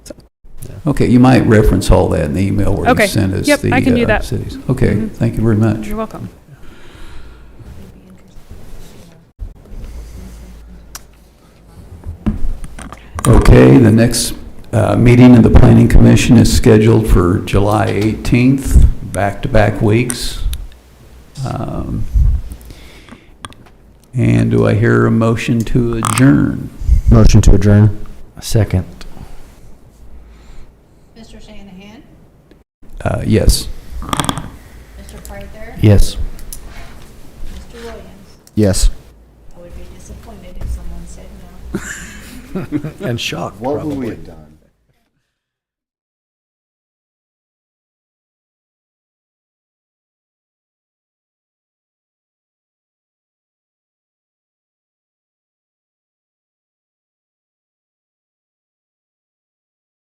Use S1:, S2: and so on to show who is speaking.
S1: Okay, you might reference all that in the email where
S2: Okay.
S1: you sent us
S2: Yep,
S1: the
S2: I can do
S1: uh,
S2: that.
S1: cities. Okay,
S2: Mhm.
S1: thank you very much.
S2: You're welcome.
S1: Okay, the next uh, meeting of the Planning Commission is scheduled for July 18th, back-to-back weeks. Um, And do I hear a motion to adjourn?
S3: Motion to adjourn. Second.
S4: Mr. Shanahan,
S1: Uh, Yes.
S4: Mr. Pryther,
S3: Yes.
S4: Mr. Williams.
S3: Yes.
S4: I would be disappointed if someone said no.
S3: And shocked,
S5: What would we have done?